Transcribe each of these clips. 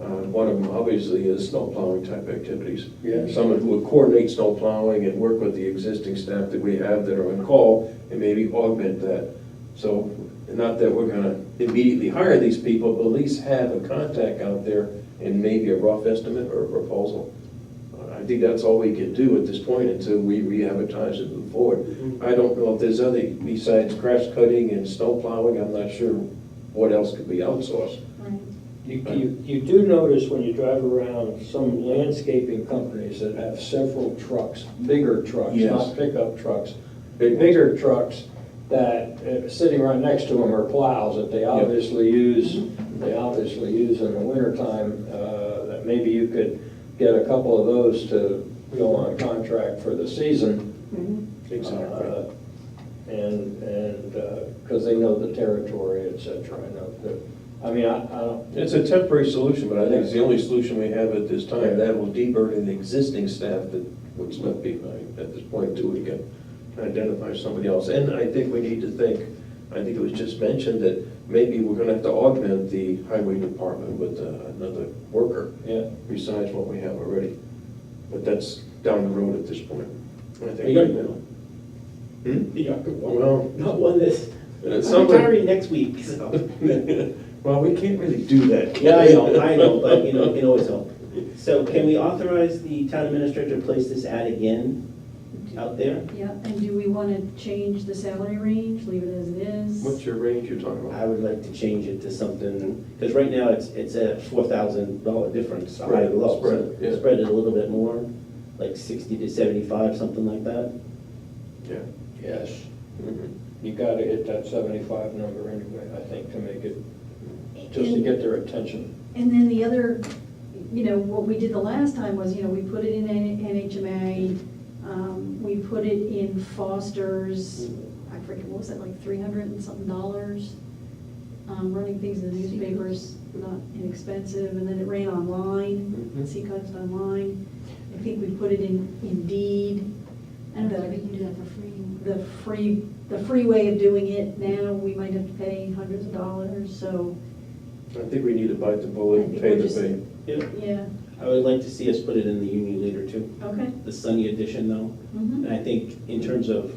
Uh, one of them obviously is snow plowing type activities. Yeah. Someone who would coordinate snow plowing and work with the existing staff that we have that are on call and maybe augment that. So, not that we're gonna immediately hire these people, but at least have a contact out there and maybe a rough estimate or a proposal. Uh, I think that's all we can do at this point until we re-advertise and move forward. I don't know if there's other, besides grass cutting and snow plowing, I'm not sure what else could be outsourced. You, you, you do notice when you drive around some landscaping companies that have several trucks, bigger trucks, Yes. not pickup trucks, Big ones. bigger trucks that, uh, sitting right next to them are plows that they obviously use, they obviously use in the wintertime, uh, that maybe you could get a couple of those to go on contract for the season. Uh, And, and, because they know the territory, et cetera, I know that, I mean, I, I don't, It's a temporary solution, but I think it's the only solution we have at this time. That will deburden the existing staff that would not be hired at this point until we can identify somebody else. And I think we need to think, I think it was just mentioned that maybe we're gonna have to augment the highway department with uh, another worker yeah. besides what we have already. But that's down the road at this point. I Are think you right gonna, now. Hmm? you got good one. Well, Not one this, Uh, I'm someone- retiring next week, so. well, we can't really do that. Yeah, I know, I know, but you know, it can always help. So can we authorize the town administrator to place this ad again out there? Yeah, and do we want to change the salary range, leave it as it What's is? your range you're talking about? I would like to change it to something, because right now it's, it's a four thousand dollar difference, high Right, and low. So spread, yeah. Spread it a little bit more, like sixty to seventy-five, something like that. Yeah. Yes, Mm-hmm. Mhm. you gotta hit that seventy-five number anyway, I think, to make it, just to get their attention. And then the other, you know, what we did the last time was, you know, we put it in N- NHMA, um, we put it in Foster's, I forget, what was it, like three hundred and something dollars? Um, running things in the newspapers, not inexpensive, and then it ran online, Mm-hmm. Mhm. Seacoast online. I think we put it in Indeed. I don't know, we can do that for free. the free, the free way of doing it now, we might have to pay hundreds of dollars, so, I think we need to bite the bullet and I think pay we're the just- fee. Yeah, yeah, I would like to see us put it in the Union Leader too, okay. the Sunny edition though. mhm. And I think in terms of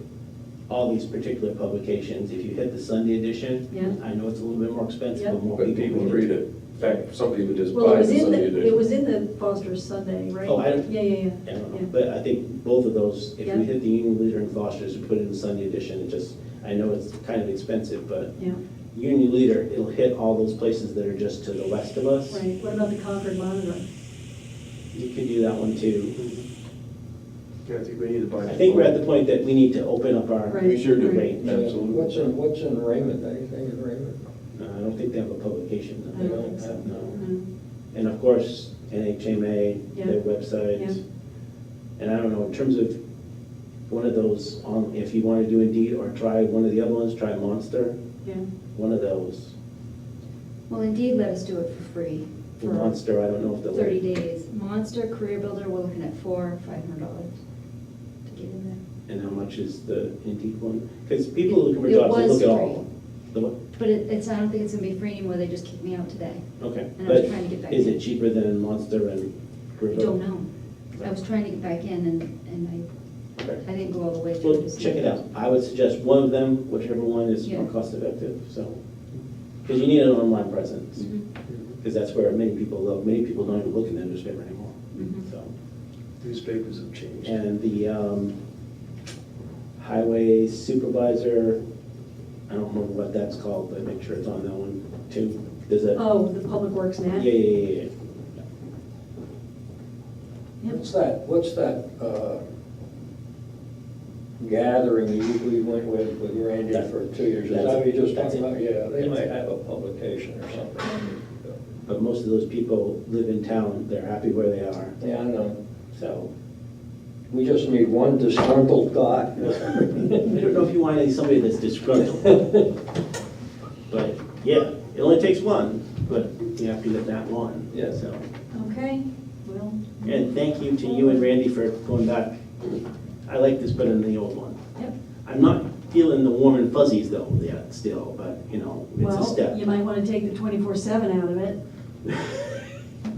all these particular publications, if you hit the Sunday edition, Yeah. I know it's a little bit more expensive, Yeah. but more But people read it. In fact, some people just Well, it buy was the in Sunday the, it edition. was in the Foster's Sunday, right? Oh, I don't- Yeah, yeah, I yeah, don't know, yeah. but I think both of those, if Yeah. we hit the Union Leader and Foster's, we put it in the Sunday edition, it just, I know it's kind of expensive, but Yeah, Union Leader, it'll hit all those places that are just to the west of us. right, what about the Concord Monitor? You could do that one too. Mm-hmm. Yeah, I think we need to bite the I think we're at bullet. the point that we need to open up our. Right. We sure do. Right. Absolutely. What's in, what's in Raymond, anything in Raymond? No, Uh, I don't think they have a publication. that I they don't think so. have, No. Um, And of course, NHMA, Yeah. their Yeah. website. And I don't know, in terms of one of those, on if you want to do Indeed or try one of the other ones, try Monster, Yeah, one of those. Well, Indeed let us do it for free The for Monster, I don't know if they'll. thirty days. Monster Career Builder, we're looking at four, five hundred dollars to get in And how much is the Indeed one? Because people are looking for It jobs, they was look at all. The what? there. But it, it's, I don't think it's gonna be free anymore, they just kicked me out today. Okay. And I was But trying to get back Is in. it cheaper than Monster and I Grubhub? don't know. I was trying to get back in and, and I, Okay. I didn't go all the way through. Well, to see check it out. I would suggest one of them, whichever one is more Yeah. cost effective, so. Because you need an online presence. Mhm, because that's where many people live. Many people don't even look in the newspaper anymore. mhm. So, Newspapers have changed. and the um, highway supervisor, I don't remember what that's called, but make sure it's on that one too. There's a, oh, the Public Works yeah, net? yeah, yeah, yeah. Yep. What's that, what's that, uh, gathering you, we went with, with Randy That- for two years? Is that's that what it. you just That's talking it. about? Yeah, they That's might it. have a publication or something. But most of those people live in town. They're happy where they are. Yeah, I know. So, We just need one disgruntled guy. I don't know if you want any- somebody that's disgruntled. But, yeah, it only takes one, but you have to get that one. Yeah. So, Okay, well, and thank you to you and Randy for going back. I like this better than the old one. yep, I'm not feeling the warm and fuzzies though yet still, but you know, it's a well, step. you might want to take the twenty-four seven out of it.